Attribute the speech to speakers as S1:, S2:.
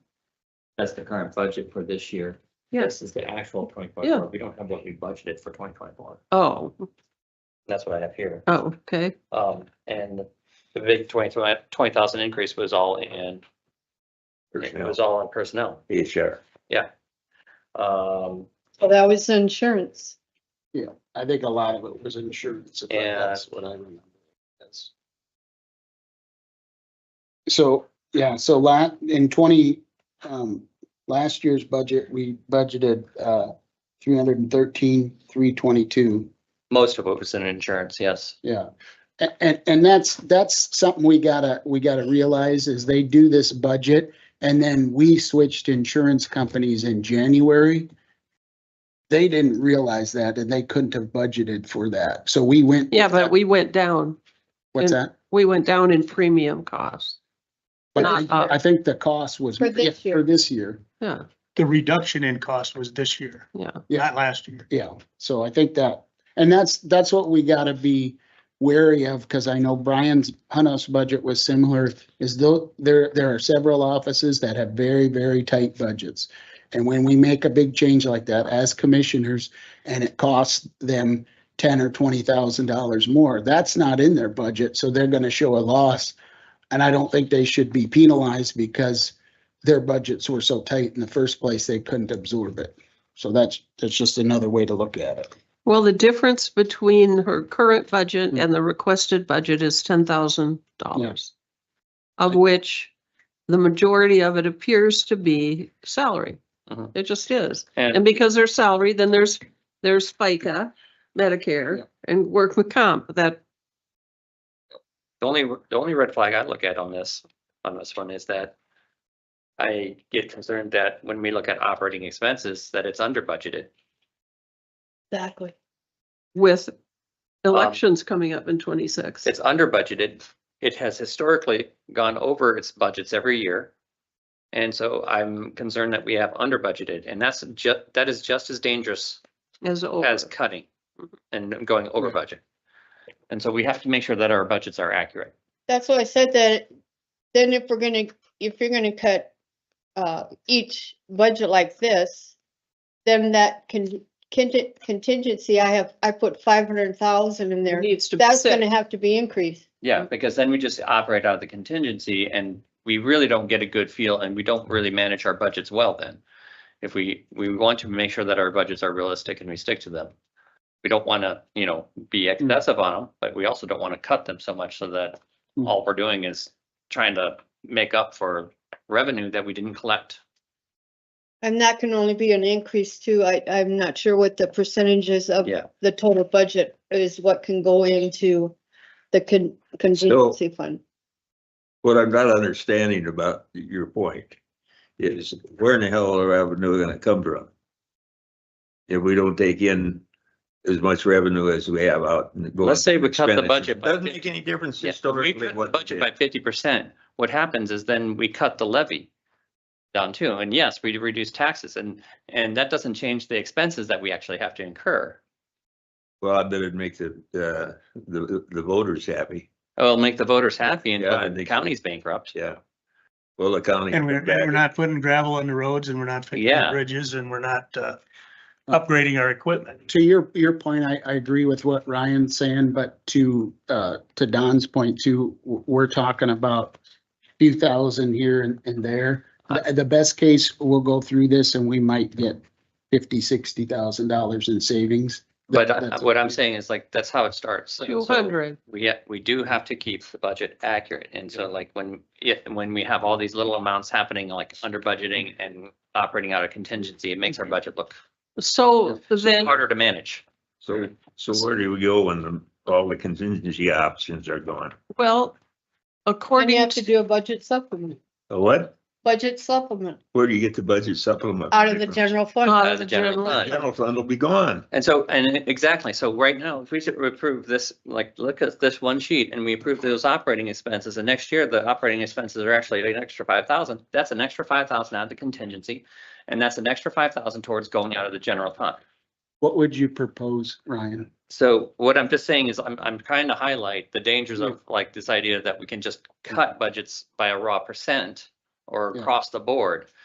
S1: That's the current budget for this year. This
S2: Yes,
S1: is the actual twenty
S2: Yeah.
S1: twenty-four. We don't have what we budgeted for twenty twenty-four.
S2: oh,
S1: That's what I have here.
S2: oh, okay,
S1: Um, and the big twenty, twenty thousand increase was all in, it was all on personnel.
S3: Be a sheriff.
S1: Um,
S4: Well, that was insurance.
S5: I think a lot of it was insurance. if I-
S1: Yeah.
S5: That's what I remember. That's- So, yeah, so la in twenty, um, last year's budget, we budgeted, uh, three hundred and thirteen, three twenty-two.
S1: most of it was in insurance, yes.
S5: Yeah. A- And, and that's, that's something we gotta, we gotta realize is they do this budget and then we switched insurance companies in January. They didn't realize that and they couldn't have budgeted for that. So we went.
S2: yeah, but we went down,
S5: What's that?
S2: we went down in premium costs,
S5: But
S2: not up.
S5: I think the cost was.
S4: For this
S5: yeah, For
S4: year.
S5: this year.
S2: yeah,
S6: the reduction in cost was this year,
S2: yeah.
S5: Yeah.
S6: not last year.
S5: Yeah. So I think that, and that's, that's what we gotta be wary of, because I know Brian's Hunos budget was similar, is though, there, there are several offices that have very, very tight budgets. And when we make a big change like that as commissioners, and it costs them ten or twenty thousand dollars more, that's not in their budget, so they're gonna show a loss. And I don't think they should be penalized because their budgets were so tight in the first place, they couldn't absorb it. So that's, that's just another way to look at it.
S2: Well, the difference between her current
S5: Hmm.
S2: budget and the requested budget is ten thousand dollars. Of which the majority of it appears to be salary.
S5: Uh-huh.
S1: Mhm.
S2: It just is. And
S1: And
S2: because there's salary, then there's, there's FICA,
S5: Yeah.
S2: Medicare, and work with comp that,
S1: the only, the only red flag I look at on this, on this one is that I get concerned that when we look at operating expenses, that it's under budgeted.
S4: Exactly.
S2: with
S5: Um,
S2: elections coming up in twenty-six.
S1: It's under budgeted. It has historically gone over its budgets every year. And so I'm concerned that we have under budgeted and that's ju, that is just as dangerous
S2: As, over.
S1: as cutting and going over budget. And so we have to make sure that our budgets are accurate.
S4: That's why I said that, then if we're gonna, if you're gonna cut uh, each budget like this, then that can, contingency, I have, I put five hundred thousand in
S2: there
S4: there.
S2: needs to be
S4: That's gonna
S2: six.
S4: have to be increased.
S1: Yeah, because then we just operate out of the contingency and we really don't get a good feel and we don't really manage our budgets well then. If we, we want to make sure that our budgets are realistic and we stick to them. We don't want to, you know, be excessive on them, but we also don't want to cut them so much so that
S5: Mm.
S1: all we're doing is trying to make up for revenue that we didn't collect.
S4: And that can only be an increase too. I, I'm not sure what the percentages of
S1: Yeah.
S4: the total budget is what can go into the con- contingency fund.
S3: What I'm not understanding about your point is where in the hell are revenue gonna come from? If we don't take in as much revenue as we have out. and go
S1: Let's say we cut the
S3: expenditures.
S1: budget by
S3: Doesn't
S1: 50.
S3: make any difference
S1: Yeah, if we
S3: historically
S1: cut the
S3: what.
S1: budget
S3: they
S1: by
S3: did.
S1: fifty percent, what happens is then we cut the levy down too. And yes, we reduce taxes and, and that doesn't change the expenses that we actually have to incur.
S3: Well, I bet it'd make the, uh, the, the voters happy,
S1: It'll make the voters happy
S3: Yeah, I
S1: and the
S3: think so.
S1: county's bankrupt.
S3: yeah. Well, the county.
S6: And we're, we're not putting gravel on the roads and we're not fixing
S1: Yeah.
S6: the bridges and we're not, uh, upgrading our equipment.
S5: To your, your point, I, I agree with what Ryan's saying, but to, uh, to Don's point too, w- we're talking about few thousand here and, and there. The, the best case, we'll go through this and we might get fifty, sixty thousand dollars in savings.
S1: But
S5: That-
S1: uh,
S5: that's-
S1: what I'm saying is like, that's how it starts. So-
S2: Two
S1: so
S2: hundred.
S1: We, ha- we do have to keep the budget accurate. And so like when, yeah, when we have all these little amounts happening, like under budgeting and operating out of contingency, it makes our budget look
S2: So then.
S1: harder to manage.
S3: So, so where do we go when the, all the contingency options are gone?
S2: Well,
S4: And you
S2: according
S4: have to
S2: to,
S4: do a budget supplement,
S3: A Uh, What?
S4: budget supplement
S3: Where do you get the budget supplement?
S4: out of the
S3: from?
S4: general
S2: Out
S4: fund.
S1: Out of the general
S3: The
S1: fund.
S3: General fund will be gone.
S1: And so, and it- exactly, so right now, if we should approve this, like, look at this one sheet and we approve those operating expenses, and next year the operating expenses are actually an extra five thousand, that's an extra five thousand out of the contingency, and that's an extra five thousand towards going out of the general fund.
S5: What would you propose, Ryan?
S1: So what I'm just saying is I'm, I'm trying to highlight the dangers of like this idea that we can just cut budgets by a raw percent or
S5: Yeah.
S1: across the board.